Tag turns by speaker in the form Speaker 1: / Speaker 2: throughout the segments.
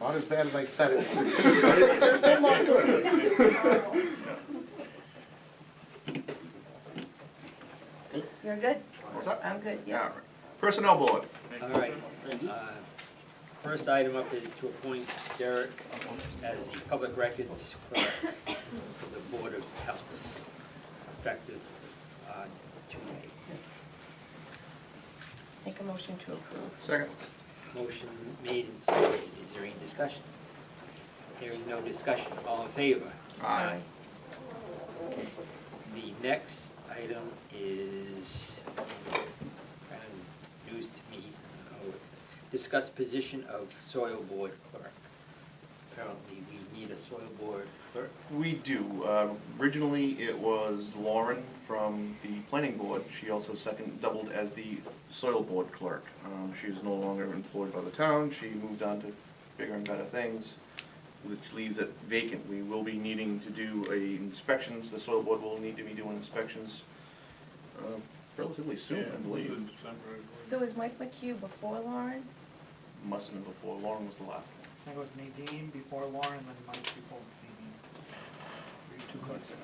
Speaker 1: Not as bad as I said it was. But it- It's still not good.
Speaker 2: You're good?
Speaker 3: What's up?
Speaker 2: I'm good,
Speaker 3: All
Speaker 2: yeah.
Speaker 3: right. Personnel board,
Speaker 4: All right. Uh, First item up is to appoint Derek as the public records clerk for the Board of Health, effective uh, today.
Speaker 2: Make a motion to approve.
Speaker 3: second.
Speaker 4: Motion made and seconded. Is there any discussion? Hearing no discussion. All in favor?
Speaker 3: Aye.
Speaker 4: The next item is kind of news to me. uh, Discuss position of soil board clerk. Apparently, we need a soil board clerk.
Speaker 3: We do. Uh, Originally, it was Lauren from the planning board. She also second, doubled as the soil board clerk. Um, She is no longer employed by the town. She moved on to bigger and better things, which leaves it vacant. We will be needing to do a inspections. The soil board will need to be doing inspections uh, relatively soon, I believe.
Speaker 2: So was Mike McHugh before Lauren?
Speaker 3: Must have been before. Lauren was the last one.
Speaker 5: I think it was Nadine before Lauren, then Mike before Nadine. Two clerks ago.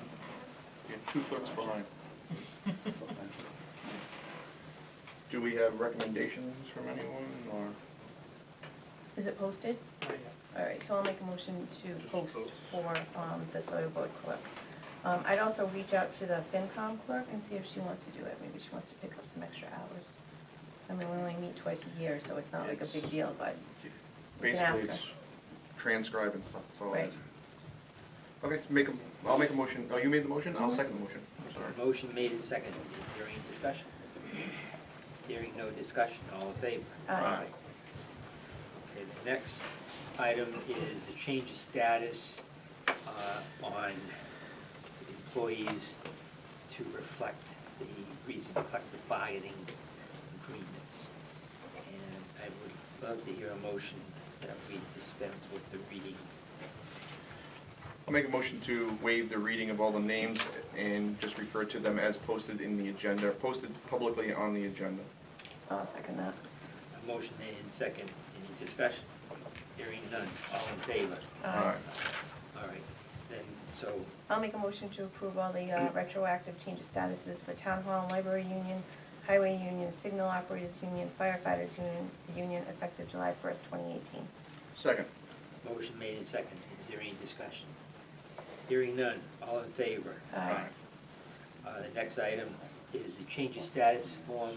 Speaker 3: You have two clerks behind. Do we have recommendations from anyone, or?
Speaker 2: Is it posted?
Speaker 5: Not yet.
Speaker 2: All right, so I'll make a motion to post for um, the soil board clerk. Um, I'd also reach out to the FinCom clerk and see if she wants to do it. Maybe she wants to pick up some extra hours. I mean, we only meet twice a year, so it's not like a big deal, but, We can ask
Speaker 3: Basically, it's transcribe and stuff, that's all.
Speaker 2: right.
Speaker 3: Okay, make a, I'll make a motion, oh, you made the motion, I'll second the motion, I'm sorry.
Speaker 4: Motion made and seconded. Is there any discussion? Hearing no discussion. All in favor?
Speaker 2: Uh,
Speaker 4: Okay, the next item is a change of status uh, on employees to reflect the recent collective bargaining agreements. And I would love to hear a motion that we dispense with the reading.
Speaker 3: I'll make a motion to waive the reading of all the names and just refer to them as posted in the agenda, posted publicly on the agenda.
Speaker 2: I'll second that.
Speaker 4: A motion made and second. Any discussion? Hearing none. All in favor?
Speaker 2: Aye.
Speaker 3: Alright.
Speaker 4: All right, then, so,
Speaker 2: I'll make a motion to approve all the uh, retroactive change of statuses for Town Hall, Library Union, Highway Union, Signal Operators Union, Firefighters Union, Union effective July 1st, 2018.
Speaker 3: Second.
Speaker 4: motion made and second. Is there any discussion? Hearing none. All in favor?
Speaker 2: Uh,
Speaker 4: Uh, The next item is the change of status form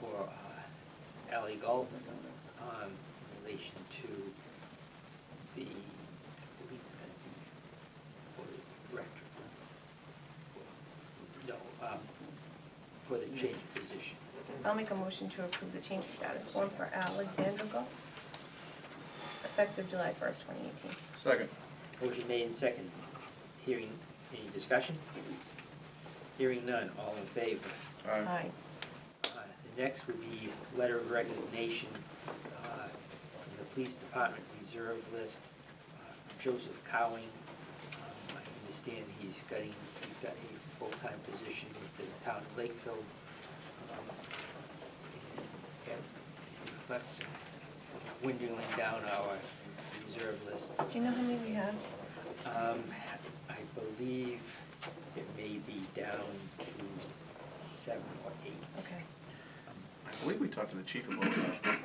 Speaker 4: for uh, Ally Golf um, in relation to the, I believe it's going to be for the director. No, um, for the change of position.
Speaker 2: I'll make a motion to approve the change of status form for Alexander Golf effective July 1st, 2018.
Speaker 3: Second.
Speaker 4: Motion made and seconded. Hearing, any discussion? Hearing none. All in favor?
Speaker 3: Aye.
Speaker 4: Uh, The next would be letter of resignation uh, from the Police Department Reserve List, uh, Joseph Cowling. Um, I understand he's getting, he's got a full-time position with the town of Lakeville. Um, and That reflects windling down our reserve list.
Speaker 2: Do you know how many we have?
Speaker 4: Um, I believe it may be down to seven or eight.
Speaker 2: Okay.
Speaker 3: I believe we talked to the chief about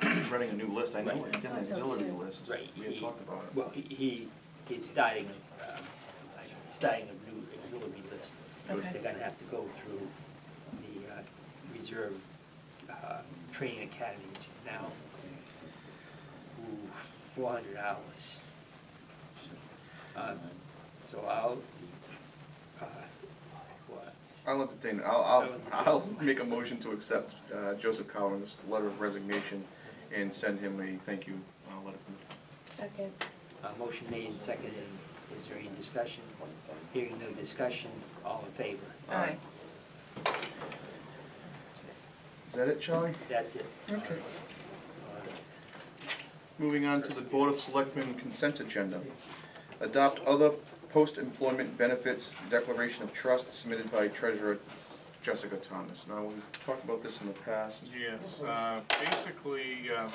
Speaker 3: that, running a new list, I know we did an auxiliary list.
Speaker 4: Right.
Speaker 3: We had
Speaker 4: he-
Speaker 3: talked about it.
Speaker 4: Well, he- he, he's starting, um, like, starting a new auxiliary list.
Speaker 2: Okay.
Speaker 4: They're gonna have to go through the uh, reserve uh, training academy, which is now four hundred hours. Um, So I'll, uh, what,
Speaker 3: I'll entertain, I'll, I'll, I'll make a motion to accept uh, Joseph Collins' letter of resignation and send him a thank you uh, letter. from the
Speaker 2: Second.
Speaker 4: uh, motion made and seconded, is there any discussion? Hearing no discussion, all in favor?
Speaker 2: Aye.
Speaker 3: Is that it, Charlie?
Speaker 4: That's it. Uh,
Speaker 3: Okay. Moving on to the Board of Selectmen consent agenda.
Speaker 4: uh,
Speaker 3: Adopt other post-employment benefits declaration of trust submitted by Treasurer Jessica Thomas. Now, we've talked about this in the past.
Speaker 6: Yes, uh, basically, um,